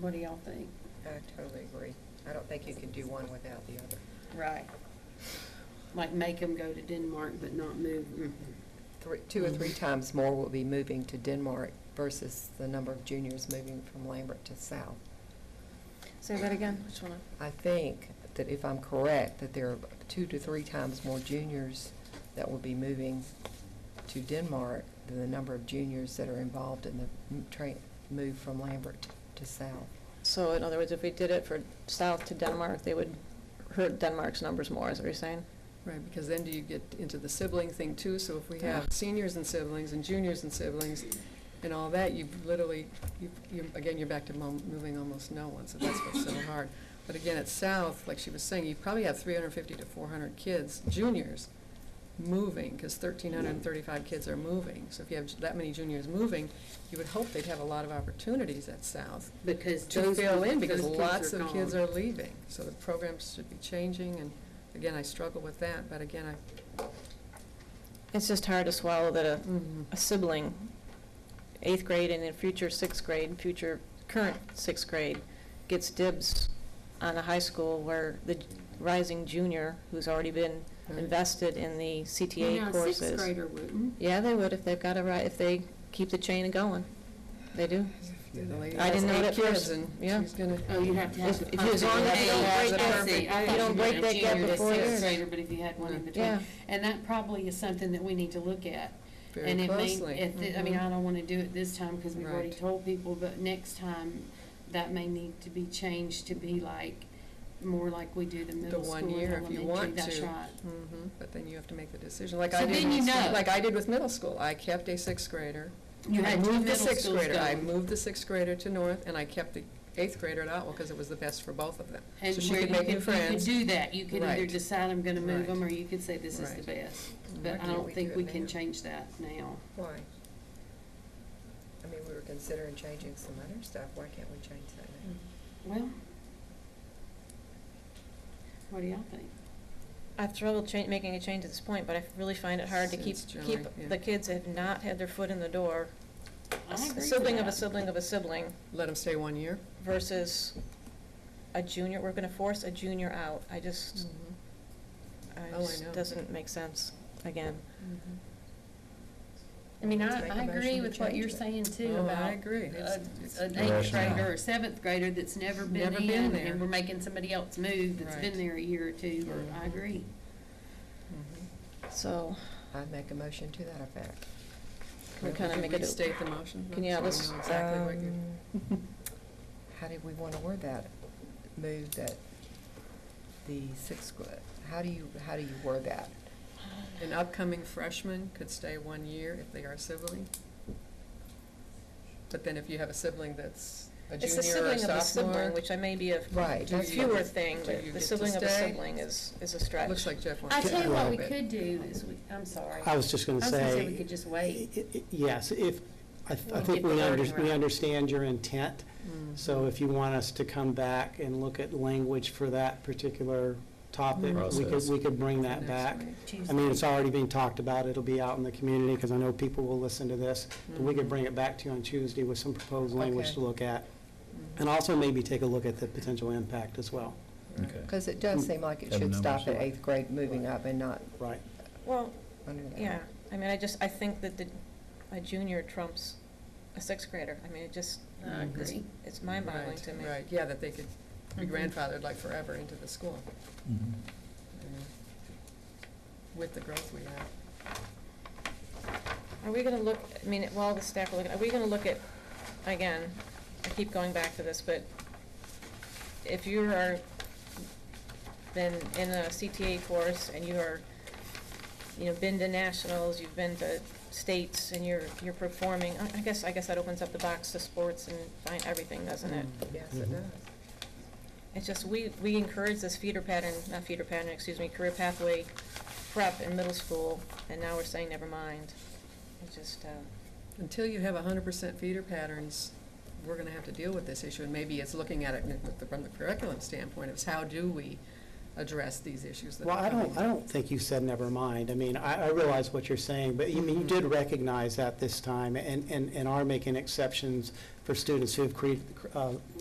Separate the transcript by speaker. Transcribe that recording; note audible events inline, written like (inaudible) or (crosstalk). Speaker 1: What do y'all think?
Speaker 2: I totally agree. I don't think you can do one without the other.
Speaker 1: Right. Like make them go to Denmark but not move. Mm-mm.
Speaker 2: Three, two or three times more will be moving to Denmark versus the number of juniors moving from Lambert to South.
Speaker 3: Say that again, which one?
Speaker 2: I think that if I'm correct, that there are two to three times more juniors that will be moving to Denmark than the number of juniors that are involved in the m- train, move from Lambert to South.
Speaker 3: So in other words, if we did it for south to Denmark, they would hurt Denmark's numbers more, is what you're saying?
Speaker 4: Right, because then do you get into the sibling thing too, so if we
Speaker 3: Yeah.
Speaker 4: have seniors and siblings and juniors and siblings and all that, you've literally, you, you, again, you're back to mo- moving almost no one, so that's what's so hard. But again, at South, like she was saying, you probably have three hundred and fifty to four hundred kids, juniors, moving, because thirteen hundred and thirty-five kids are moving. So if you have j- that many juniors moving, you would hope they'd have a lot of opportunities at South
Speaker 1: Because
Speaker 4: to
Speaker 1: those.
Speaker 4: fill in, because
Speaker 1: those
Speaker 4: lots of kids
Speaker 1: gone.
Speaker 4: are leaving. So the programs should be changing, and again, I struggle with that, but again, I
Speaker 3: It's just hard to swallow that a,
Speaker 1: Mm-hmm.
Speaker 4: Mhm.
Speaker 3: a sibling, eighth grade and then future sixth grade, future current sixth grade, gets dibs on a high school where the rising junior, who's already been
Speaker 4: Right.
Speaker 3: invested in the
Speaker 1: Well, now,
Speaker 3: CTA
Speaker 1: a
Speaker 3: courses.
Speaker 1: Sixth grader wouldn't.
Speaker 3: Yeah, they would if they've got a right, if they keep the chain going. They do.
Speaker 4: The lady
Speaker 3: I
Speaker 4: has
Speaker 3: didn't know
Speaker 4: eight
Speaker 3: that
Speaker 4: kids
Speaker 3: first.
Speaker 4: and
Speaker 3: Yeah.
Speaker 4: She's gonna,
Speaker 1: Oh, you have to have.
Speaker 3: If- if you- as long as you don't break that- if you don't break that gap before years.
Speaker 1: Sixth grader, but if you had one in
Speaker 3: Yeah.
Speaker 1: between. And that probably is something that we need to look at.
Speaker 4: very
Speaker 1: And it may-
Speaker 4: closely. Mm-hmm.
Speaker 1: if it- I mean,
Speaker 3: Mhm.
Speaker 1: I don't wanna do it this time, cause we've already
Speaker 4: Right.
Speaker 1: told people, but next time, that may need to be changed to be like, more like we do the middle school
Speaker 4: one
Speaker 1: and
Speaker 4: year if you
Speaker 1: elementary,
Speaker 4: want
Speaker 1: that's
Speaker 4: to.
Speaker 1: right.
Speaker 4: Mhm. But then you have to make the decision, like
Speaker 1: So
Speaker 4: I did.
Speaker 1: then you know.
Speaker 4: Like I did with middle school. I kept a sixth grader.
Speaker 1: You
Speaker 4: I
Speaker 1: had two
Speaker 4: moved the
Speaker 1: middle
Speaker 4: sixth
Speaker 1: schools
Speaker 4: grader. I
Speaker 1: going.
Speaker 4: moved the sixth grader to North, and I kept the eighth grader at Otwell, because it was the best for both of them.
Speaker 1: And
Speaker 4: So she
Speaker 1: where
Speaker 4: could
Speaker 1: you
Speaker 4: make new
Speaker 1: you
Speaker 4: friends.
Speaker 1: do that, you could either
Speaker 4: Right.
Speaker 1: decide I'm gonna move
Speaker 4: Right.
Speaker 1: them, or you could say this is the best.
Speaker 4: Right. Mm-hmm.
Speaker 2: Why
Speaker 1: But I
Speaker 2: can't
Speaker 1: don't
Speaker 2: we
Speaker 1: think
Speaker 2: do it
Speaker 1: we can
Speaker 2: now?
Speaker 1: change that now.
Speaker 2: Why? I mean, we were considering changing some other stuff. Why can't we change that now?
Speaker 1: Well, what do y'all think?
Speaker 3: I've struggled cha- making a change at this point, but I really find it hard to keep,
Speaker 4: Since
Speaker 3: keep,
Speaker 4: July, yeah.
Speaker 3: the kids have not had their foot in the door.
Speaker 1: I
Speaker 3: A
Speaker 1: agree with
Speaker 3: Sibling of a
Speaker 1: that.
Speaker 3: sibling of a sibling
Speaker 4: Let them stay one year.
Speaker 3: versus a junior, we're gonna force a junior out. I
Speaker 1: Mm-hmm.
Speaker 3: just,
Speaker 4: Mm-hmm.
Speaker 3: I
Speaker 4: Hmm. Oh, I
Speaker 3: just,
Speaker 4: know.
Speaker 3: doesn't make sense, again.
Speaker 1: I mean,
Speaker 2: Let's
Speaker 1: I,
Speaker 2: make
Speaker 1: I
Speaker 2: a motion
Speaker 1: agree
Speaker 2: to
Speaker 1: with what
Speaker 2: change
Speaker 1: you're
Speaker 2: it.
Speaker 1: saying too
Speaker 4: Oh, I
Speaker 1: about.
Speaker 4: agree. It's-
Speaker 1: a-
Speaker 4: it's
Speaker 1: An eighth
Speaker 5: rational.
Speaker 1: grader or a seventh grader that's never been
Speaker 4: Never been
Speaker 1: in,
Speaker 4: there.
Speaker 1: and we're making somebody else move that's been
Speaker 4: Right.
Speaker 1: there a year or two, or, I
Speaker 4: Mhm.
Speaker 1: agree.
Speaker 4: Mhm.
Speaker 3: So,
Speaker 2: i make a motion to that effect.
Speaker 3: we
Speaker 4: Well,
Speaker 3: kinda
Speaker 4: could
Speaker 3: make it, a-
Speaker 4: Restate the motion.
Speaker 3: Can you
Speaker 4: so we
Speaker 3: let's-
Speaker 4: know exactly what you're-
Speaker 2: Um, (laughs) How did we want to word that? Move that the sixth, gra- how do you, how do you word that?
Speaker 4: An upcoming freshman could stay one year if they are a sibling. But then if you have a sibling that's a
Speaker 3: it's the
Speaker 4: junior or
Speaker 3: sibling of a sibling,
Speaker 4: sophomore,
Speaker 3: which I may be a
Speaker 2: Right,
Speaker 4: Do
Speaker 2: that's
Speaker 4: you-
Speaker 3: fewer thing,
Speaker 4: do
Speaker 3: but
Speaker 4: you
Speaker 3: the
Speaker 4: get to
Speaker 3: sibling of a
Speaker 4: stay?
Speaker 3: sibling is, is a stretch.
Speaker 4: looks like Jeff wants
Speaker 1: I
Speaker 4: to.
Speaker 1: tell you what
Speaker 4: grow
Speaker 1: we
Speaker 4: a bit.
Speaker 1: could do is, we, I'm sorry.
Speaker 5: I was just going
Speaker 1: I
Speaker 5: to
Speaker 1: was
Speaker 5: say.
Speaker 1: gonna say we could just wait.
Speaker 5: i- i- Yes, if, I th- I
Speaker 1: We'll get
Speaker 5: think
Speaker 1: the
Speaker 5: we
Speaker 1: wording
Speaker 5: under,
Speaker 1: right.
Speaker 5: we understand your intent.
Speaker 4: Mm.
Speaker 5: So if you want us to come back and look at language for that particular topic, we could,
Speaker 6: Process.
Speaker 5: we could bring
Speaker 4: Next
Speaker 5: that back.
Speaker 4: week.
Speaker 5: I mean, it's already being talked about, it'll be out in the community, because I know people will listen to this. But we could bring it back to you on Tuesday with some proposed language
Speaker 2: Okay.
Speaker 5: to look at.
Speaker 4: Mm-hmm.
Speaker 5: And also maybe take a look at the potential impact as well,
Speaker 6: Okay.
Speaker 2: Because it does seem like it
Speaker 6: Have
Speaker 2: should stop
Speaker 6: numbers.
Speaker 2: at eighth grade, moving up and not
Speaker 5: right?
Speaker 3: Well,
Speaker 2: under that.
Speaker 3: yeah, I mean, I just, I think that the, a junior trumps a sixth grader. I mean, it just,
Speaker 1: I agree.
Speaker 3: it's mind-boggling
Speaker 4: Right,
Speaker 3: to me.
Speaker 4: Right, yeah, that they could be
Speaker 1: Mhm.
Speaker 4: grandfathered like forever into the school.
Speaker 6: Mhm.
Speaker 4: you know, Mm-hmm. With the growth we have.
Speaker 3: Are we gonna look, I mean, while the staff are looking, are we gonna look at, again, I keep going back to this, but if you are, been in a CTA course and you are, you know, been to nationals, you've been to states and you're, you're performing, I, I guess, I guess that opens up the box to sports and find everything, doesn't it?
Speaker 2: Yes, it
Speaker 5: Mhm.
Speaker 2: does.
Speaker 3: It's just, we, we encourage this feeder pattern, not feeder pattern, excuse me, career pathway prep in middle school, and now we're saying, never mind. It's just, uh,
Speaker 4: Until you have hundred percent feeder patterns, we're gonna have to deal with this issue, and maybe it's looking at it with the- from the curriculum standpoint, it's how do we address these issues that
Speaker 5: Well,
Speaker 4: are
Speaker 5: I
Speaker 4: coming?
Speaker 5: don't, I don't think you said never mind. I mean, I, I realize what you're saying, but you
Speaker 4: Mm-hmm.
Speaker 5: mean, you did recognize that this time and, and, and are making exceptions for students who have cre- uh,